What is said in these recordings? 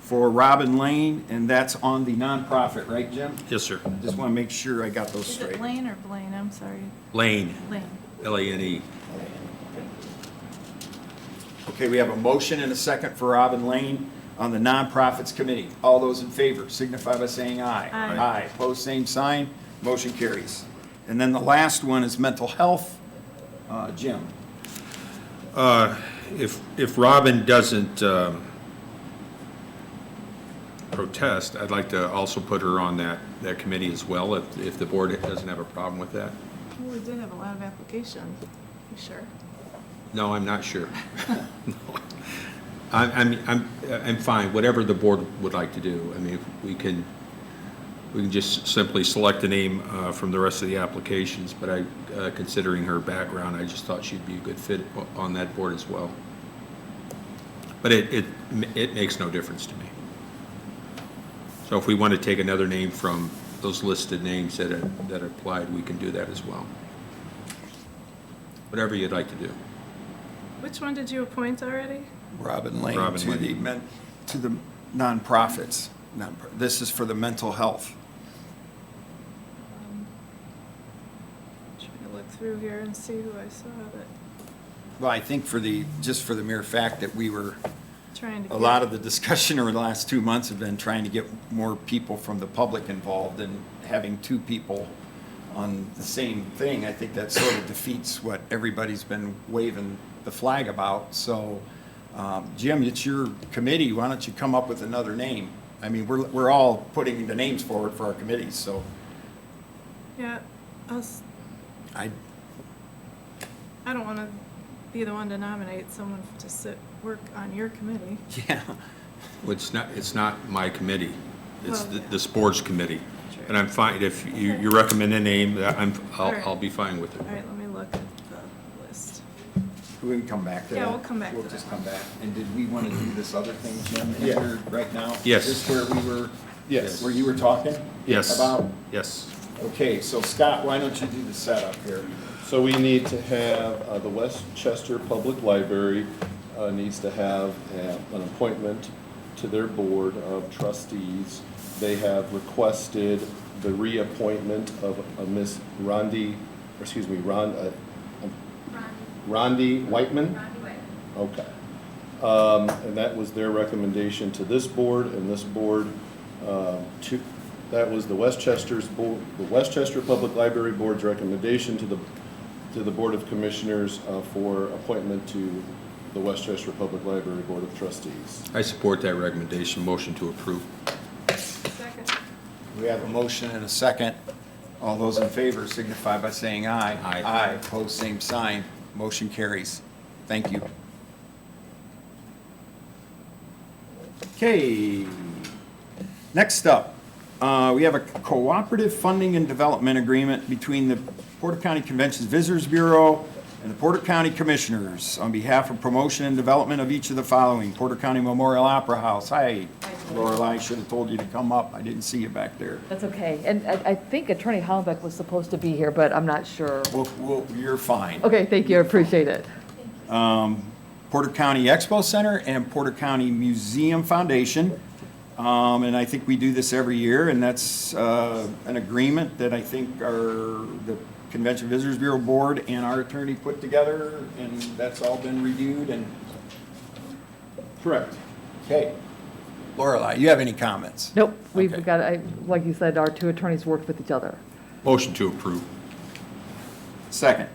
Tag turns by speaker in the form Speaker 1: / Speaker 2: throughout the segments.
Speaker 1: for Robin Lane, and that's on the nonprofit, right, Jim?
Speaker 2: Yes, sir.
Speaker 1: Just want to make sure I got those
Speaker 3: Is
Speaker 1: straight.
Speaker 3: it Lane or Blaine? I'm sorry.
Speaker 2: Lane,
Speaker 3: Lane.
Speaker 2: L-A-N-E.
Speaker 1: Okay, we have a motion and a second for Robin Lane on the nonprofits committee. All those in favor signify by saying aye.
Speaker 3: Aye.
Speaker 1: Aye, pose same sign, motion carries. And then the last one is mental health. Uh, Jim,
Speaker 2: If, if Robin doesn't um, protest, I'd like to also put her on that, that committee as well, if, if the board doesn't have a problem with that.
Speaker 3: Well, Oh, we did have a lot of applications, for sure.
Speaker 2: No, I'm not sure. No. I'm, I'm, I'm, I'm fine, whatever the board would like to do. I mean, we can, we can just simply select a name uh, from the rest of the applications, but I, uh, considering her background, I just thought she'd be a good fit o- on that board as well. But it, it, it makes no difference to me. So if we want to take another name from those listed names that, are- that applied, we can do that as well. Whatever you'd like to do.
Speaker 3: Which one did you appoint already?
Speaker 1: Robin Lane
Speaker 2: Robin
Speaker 1: to the,
Speaker 2: Lane.
Speaker 1: men- to the nonprofits. Nonpro- This is for the mental health.
Speaker 3: Um, Trying to look through here and see who I saw that,
Speaker 1: Well, I think for the, just for the mere fact that we were,
Speaker 3: trying to.
Speaker 1: a lot of the discussion over the last two months have been trying to get more people from the public involved and having two people on the same thing, I think that sort of defeats what everybody's been waving the flag about. So, um, Jim, it's your committee. Why don't you come up with another name? I mean, we're, we're all putting the names forward for our committees, so
Speaker 3: Yeah, I'll s-
Speaker 1: I,
Speaker 3: I don't want to be the one to nominate someone to sit, work on your committee.
Speaker 1: yeah.
Speaker 2: Well, It's not, it's not my committee. It's
Speaker 3: Well,
Speaker 2: th-
Speaker 3: yeah.
Speaker 2: this board's committee.
Speaker 3: Sure.
Speaker 2: And I'm fine, if you, you recommend a name, that I'm, I'll,
Speaker 3: Alright.
Speaker 2: I'll be fine with
Speaker 3: All right,
Speaker 2: it.
Speaker 3: let me look at the list.
Speaker 1: We can come back to that.
Speaker 3: Yeah, we'll come back to
Speaker 1: We'll
Speaker 3: that.
Speaker 1: just come back. And did we want to do this other thing, Jim, in
Speaker 4: Yeah.
Speaker 1: here right now?
Speaker 2: Yes.
Speaker 1: Is this where we were?
Speaker 4: Yes.
Speaker 1: Where you were talking?
Speaker 2: Yes.
Speaker 1: About,
Speaker 2: Yes.
Speaker 1: okay, so Scott, why don't you do the setup here?
Speaker 4: So we need to have, uh, the Westchester Public Library uh, needs to have uh, an appointment to their board of trustees. They have requested the reappointment of a Miss Rondi, or excuse me, Ron, uh, Rondi Whitman? Okay. Um, And that was their recommendation to this board, and this board, um, to, that was the Westchester's, bo- the Westchester Public Library Board's recommendation to the, to the Board of Commissioners uh, for appointment to the Westchester Public Library Board of Trustees.
Speaker 2: I support that recommendation, motion to approve.
Speaker 3: Second.
Speaker 1: We have a motion and a second. All those in favor signify by saying aye.
Speaker 2: Aye.
Speaker 1: Aye, opposed, same sign. Motion carries. Thank you. Okay. Next up, uh, we have a cooperative funding and development agreement between the Porter County Conventions Visitors Bureau and the Porter County Commissioners on behalf of promotion and development of each of the following. Porter County Memorial Opera House. Hi, Lorelei, I should have told you to come up. I didn't see you back there.
Speaker 5: That's okay. And I, I think Attorney Hollenbeck was supposed to be here, but I'm not sure.
Speaker 1: Well, well, you're fine.
Speaker 5: Okay, thank you, I appreciate it.
Speaker 1: Porter County Expo Center and Porter County Museum Foundation. Um, And I think we do this every year, and that's uh, an agreement that I think our, the Convention Visitors Bureau Board and our attorney put together, and that's all been reviewed and,
Speaker 4: Correct.
Speaker 1: okay. Lorelei, you have any comments?
Speaker 5: Nope,
Speaker 1: Okay.
Speaker 5: we've got, I, like you said, our two attorneys worked with each other.
Speaker 2: Motion to approve.
Speaker 1: Second,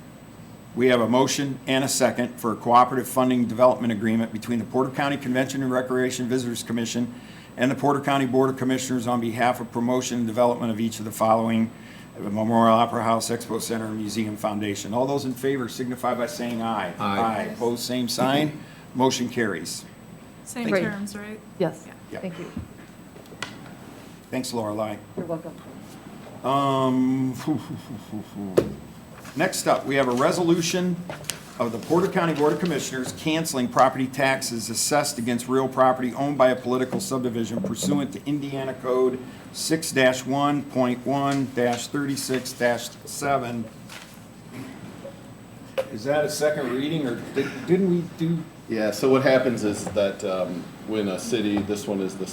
Speaker 1: we have a motion and a second for a cooperative funding development agreement between the Porter County Convention and Recreation Visitors Commission and the Porter County Board of Commissioners on behalf of promotion and development of each of the following, the Memorial Opera House, Expo Center, and Museum Foundation. All those in favor signify by saying aye.
Speaker 2: Aye.
Speaker 1: Aye, pose same sign, motion carries.
Speaker 3: Same
Speaker 5: Great.
Speaker 3: terms, right?
Speaker 5: Yes,
Speaker 1: Yeah.
Speaker 5: thank you.
Speaker 1: Thanks, Lorelei.
Speaker 5: You're welcome.
Speaker 1: Um, Next up, we have a resolution of the Porter County Board of Commissioners canceling property taxes assessed against real property owned by a political subdivision pursuant to Indiana Code six one point one thirty-six seven. Is that a second reading, or did- didn't we do
Speaker 4: Yeah, so what happens is that um, when a city, this one is the